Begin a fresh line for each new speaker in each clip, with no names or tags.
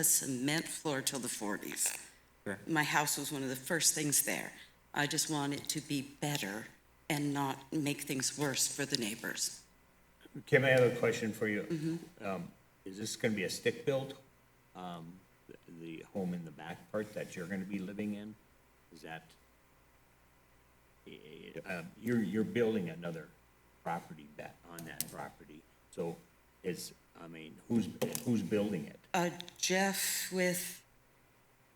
a cement floor till the 40s.
Sure.
My house was one of the first things there. I just want it to be better and not make things worse for the neighbors.
Kim, I have a question for you. Um, Is this going to be a stick build? Um, th- The home in the back part that you're going to be living in, is that? eh, um, You're, you're building another property that, on that property. So is, I mean, who's, who's building it?
Uh, Jeff with,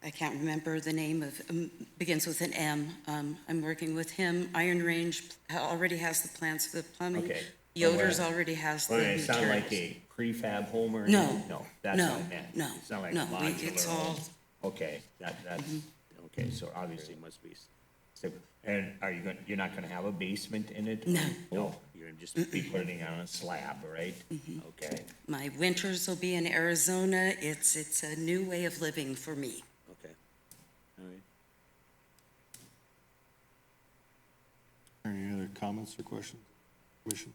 I can't remember the name of, um, begins with an M. Um, I'm working with him. Iron Range already has the plans for the plumbing.
Okay.
Yoder's already has the
Well, it sound like
materials.
a prefab home or?
No,
anything? No, that's
no,
what I meant.
no,
It's not like
no, we- it's
modular
all- Mm-hmm.
home. Okay, that, that's, okay, so obviously it must be. s- so- And are you gonna, you're not gonna have a basement in it?
No.
No, you're gonna just be putting it on a slab, right?
Mm-hmm.
Okay,
My winters will be in Arizona. It's, it's a new way of living for me.
okay, all right.
Are there Any other comments or questions? Commission?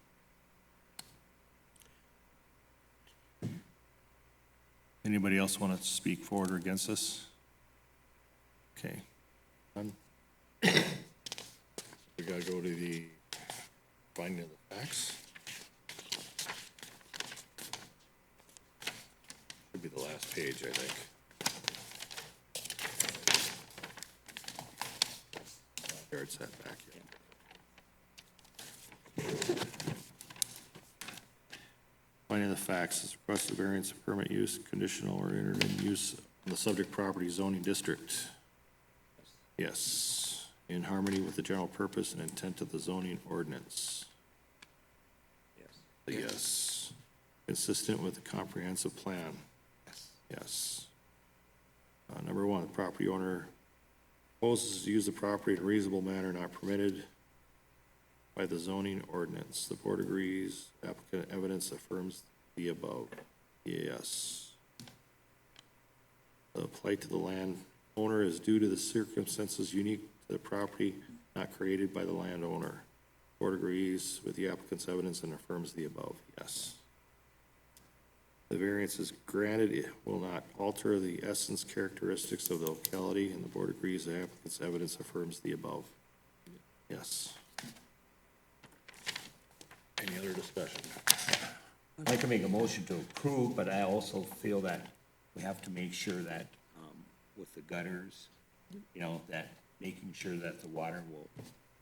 Anybody else want to speak for or against this? Okay. None? We gotta go to the finding of the facts. Should be the last page, I think. Yard setback, yeah. Finding the facts, this requested variance of permit use, conditional or interim use in the subject property zoning district. Yes, in harmony with the general purpose and intent of the zoning ordinance. Yes. Yes. Consistent with the comprehensive plan. Yes. Uh, number one, the property owner proposes to use the property in a reasonable manner not permitted by the zoning ordinance. The board agrees, applicant evidence affirms the above. Yes. The plight to the land owner is due to the circumstances unique to the property not created by the landowner. Board agrees with the applicant's evidence and affirms the above. Yes. The variance is granted, it will not alter the essence characteristics of the locality, and the board agrees the applicant's evidence affirms the above. Yes. Any other discussion?
I'd like to make a motion to approve, but I also feel that we have to make sure that, um, with the gutters, you know, that making sure that the water will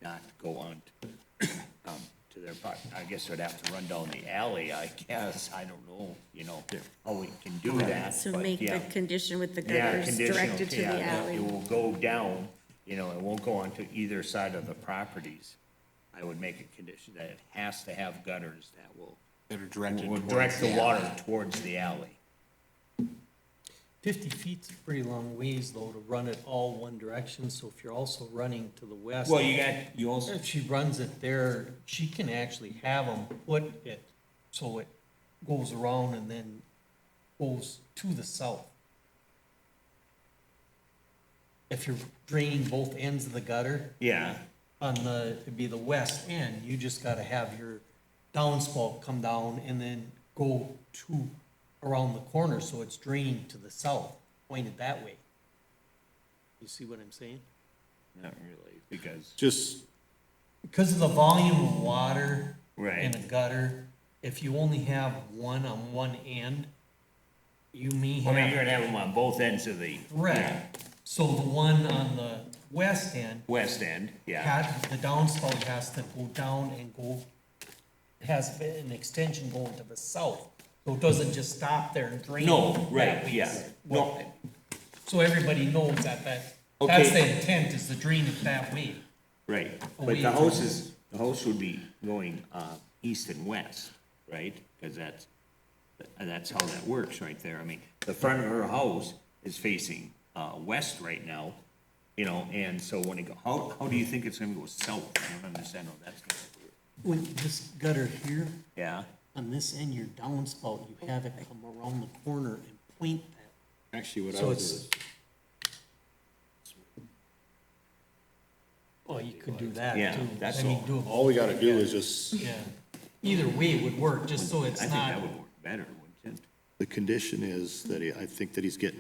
not go on to, um, to their pro I guess it would have to run down the alley, I guess, I don't know, you know, how we can do that,
So
but
make the
yeah.
condition with the
Yeah,
gutters
conditional,
directed to
yeah,
the
It
alley.
will go down, you know, it won't go onto either side of the properties. I would make a condition that it has to have gutters that will
That are directed
will
towards-
direct the water towards the alley.
50 feet's a pretty long ways, though, to run it all one direction, so if you're also running to the west.
Well, you got, you also,
If she runs it there, she can actually have them put it, so it goes around and then goes to the south. If you're draining both ends of the gutter,
yeah,
on the, it'd be the west end, you just gotta have your downspout come down and then go to, around the corner, so it's draining to the south, pointed that way. You see what I'm saying?
not really, because,
Just,
Because of the volume of water in
Right.
the gutter, if you only have one on one end, you may
I
have.
mean, you're gonna have them on both ends of the
Right, so the one on the west end
west end, yeah.
had, the downspout has to go down and go, has an extension going to the south. So it doesn't just stop there and drain.
No,
that
right,
way.
yeah, no,
So everybody knows that, that,
Okay.
that's the intent, is to drain it that way.
right, but the house is, the house would be going, uh, east and west, right? Cause that's, that's how that works right there, I mean, the front of her house is facing, uh, west right now, you know, and so when it go, how, how do you think it's gonna go south? I don't understand how that's gonna work.
When this gutter here,
Yeah,
on this end, your downspout, you have it come around the corner and point that.
actually what I
So
would do
it's-
is,
Well, you could do that
Yeah,
too.
that's
I mean,
all.
do
all we gotta do is just,
it, yeah. Either way would work, just so
I
it's
think
not.
that would work better, wouldn't it?
the condition is that he- I think that he's getting